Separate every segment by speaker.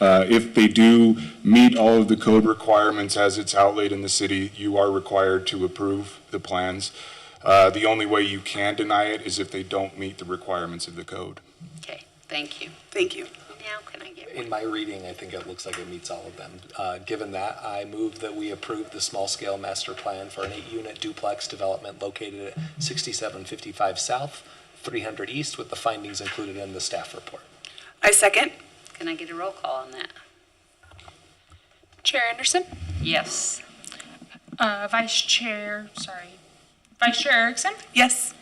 Speaker 1: Uh, If they do meet all of the code requirements as it's outlaid in the city, you are required to approve the plans. Uh, The only way you can deny it is if they don't meet the requirements of the code.
Speaker 2: Okay, thank you.
Speaker 3: Thank you.
Speaker 2: Now can I get,
Speaker 4: In my reading, I think it looks like it meets all of them. Uh, Given that, I move that we approve the small-scale master plan for an eight-unit duplex development located at 6755 South, 300 East, with the findings included in the staff report.
Speaker 3: I second.
Speaker 2: can I get a roll call on that?
Speaker 5: Chair Anderson,
Speaker 2: Yes.
Speaker 5: uh, Vice Chair, sorry, Vice Chair Erickson,
Speaker 3: Yes.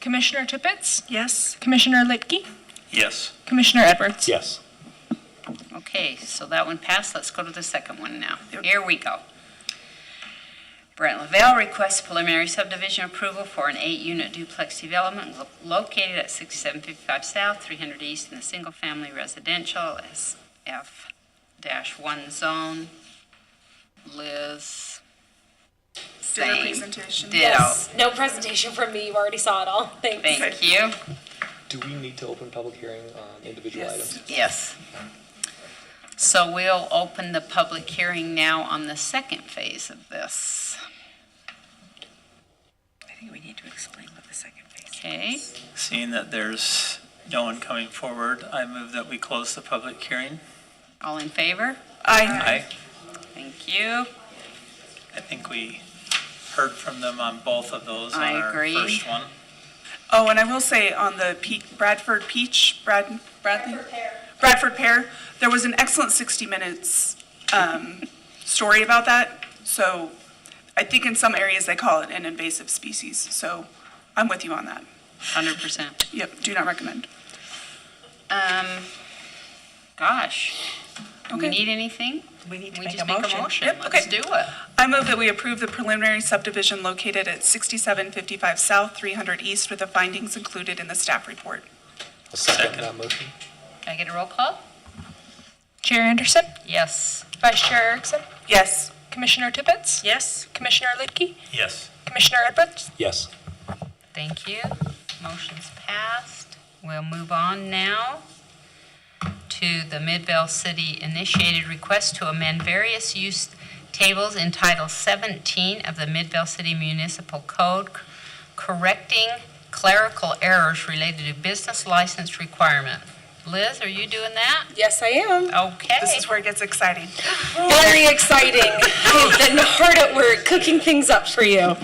Speaker 5: Commissioner Tippett,
Speaker 3: Yes.
Speaker 5: Commissioner Litke,
Speaker 6: Yes.
Speaker 5: Commissioner Edwards.
Speaker 4: Yes.
Speaker 2: Okay, so that one passed. Let's go to the second one now. Here we go. Brent Lavelle requests preliminary subdivision approval for an eight-unit duplex development lo- located at 6755 South, 300 East in the single-family residential SF-1 zone. Liz, same.
Speaker 3: presentation.
Speaker 2: Ditto.
Speaker 7: No presentation from me. You already saw it all. Thanks.
Speaker 2: Thank you.
Speaker 4: Do we need to open public hearing on individual
Speaker 3: Yes.
Speaker 4: items?
Speaker 2: Yes. So we'll open the public hearing now on the second phase of this.
Speaker 3: I think we need to explain what the second phase.
Speaker 2: Okay,
Speaker 6: Seeing that there's no one coming forward, I move that we close the public hearing.
Speaker 2: all in favor?
Speaker 3: I.
Speaker 6: I,
Speaker 2: Thank you.
Speaker 6: I think we heard from them on both of those on
Speaker 2: I
Speaker 6: our
Speaker 2: agree.
Speaker 6: first one.
Speaker 3: Oh, and I will say on the Pe- Bradford Peach, Brad, Bradley? Bradford Pear, there was an excellent 60 Minutes um, story about that. So I think in some areas they call it an invasive species. So I'm with you on that.
Speaker 2: Hundred percent.
Speaker 3: Yep, do not recommend.
Speaker 2: Um, gosh, do we
Speaker 3: Okay.
Speaker 2: need anything?
Speaker 8: We need to
Speaker 2: We
Speaker 8: make
Speaker 2: just
Speaker 8: a motion.
Speaker 3: Yep,
Speaker 2: Let's
Speaker 3: okay.
Speaker 2: do it.
Speaker 3: I move that we approve the preliminary subdivision located at 6755 South, 300 East with the findings included in the staff report.
Speaker 4: I'll second that motion.
Speaker 2: Can I get a roll call?
Speaker 5: Chair Anderson,
Speaker 2: Yes.
Speaker 5: Vice Chair Erickson,
Speaker 3: Yes.
Speaker 5: Commissioner Tippett,
Speaker 8: Yes.
Speaker 5: Commissioner Litke,
Speaker 6: Yes.
Speaker 5: Commissioner Edwards.
Speaker 4: Yes.
Speaker 2: Thank you. Motion's passed. We'll move on now to the Midvale City initiated request to amend various use tables in Title 17 of the Midvale City Municipal Code, correcting clerical errors related to business license requirement. Liz, are you doing that?
Speaker 7: Yes, I am.
Speaker 2: Okay.
Speaker 3: This is where it gets exciting.
Speaker 7: Very exciting. I've been hard at work cooking things up for you.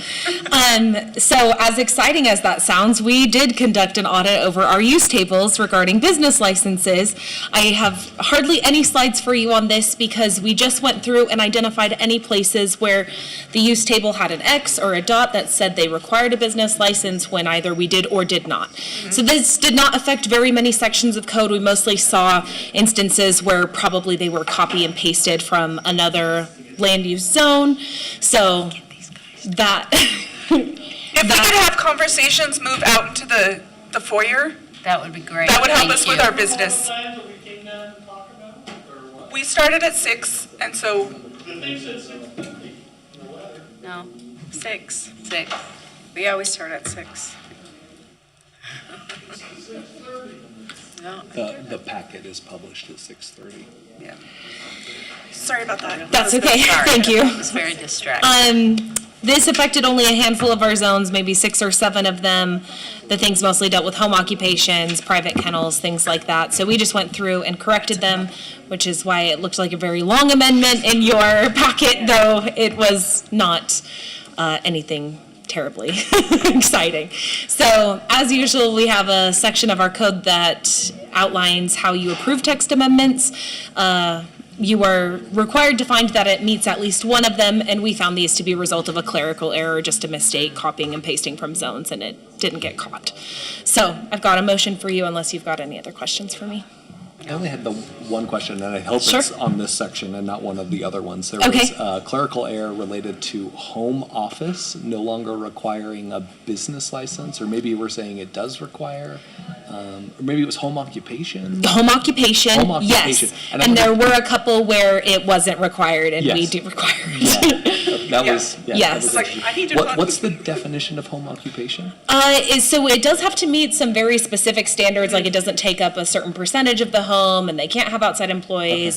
Speaker 7: Um, so, as exciting as that sounds, we did conduct an audit over our use tables regarding business licenses. I have hardly any slides for you on this because we just went through and identified any places where the use table had an X or a dot that said they required a business license when either we did or did not. So this did not affect very many sections of code. We mostly saw instances where probably they were copy and pasted from another land use zone. So that,
Speaker 3: If we could have conversations move out into the, the foyer,
Speaker 2: That would be great.
Speaker 3: that would help
Speaker 2: Thank
Speaker 3: us with
Speaker 2: you.
Speaker 3: our business.
Speaker 9: Times that we came down and talked about, it, or what?
Speaker 3: We started at six, and so
Speaker 9: The thing said six fifty.
Speaker 2: No,
Speaker 8: Six.
Speaker 2: six.
Speaker 8: We always start at six.
Speaker 4: The, the packet is published at 6:30.
Speaker 3: sorry about that.
Speaker 7: that's okay,
Speaker 2: Sorry.
Speaker 7: thank
Speaker 2: It
Speaker 7: you.
Speaker 2: was very distracting.
Speaker 7: Um, this affected only a handful of our zones, maybe six or seven of them. The things mostly dealt with home occupations, private kennels, things like that. So we just went through and corrected them, which is why it looked like a very long amendment in your packet, though it was not, uh, anything terribly exciting. So, as usual, we have a section of our code that outlines how you approve text amendments. Uh, you are required to find that it meets at least one of them, and we found these to be a result of a clerical error, just a mistake copying and pasting from zones, and it didn't get caught. So, I've got a motion for you unless you've got any other questions for me.
Speaker 4: I only had the one question, and I hope
Speaker 7: Sure.
Speaker 4: it's on this section and not one of the other ones. There
Speaker 7: Okay.
Speaker 4: was uh, clerical error related to home office no longer requiring a business license, or maybe we're saying it does require, um, or maybe it was home occupation.
Speaker 7: The home occupation,
Speaker 4: Home
Speaker 7: yes.
Speaker 4: occupation. And
Speaker 7: And,
Speaker 4: I
Speaker 7: there
Speaker 4: wonder-
Speaker 7: were a couple where it wasn't required, and we
Speaker 4: Yes.
Speaker 7: do require it.
Speaker 4: That was yeah, that
Speaker 7: Yes.
Speaker 4: was
Speaker 7: It's
Speaker 3: like,
Speaker 4: interesting.
Speaker 3: I need to
Speaker 4: What-
Speaker 3: talk-
Speaker 4: What's the definition of home occupation?
Speaker 7: Uh, is, so it does have to meet some very specific standards, like it doesn't take up a certain percentage of the home, and they can't have outside employees,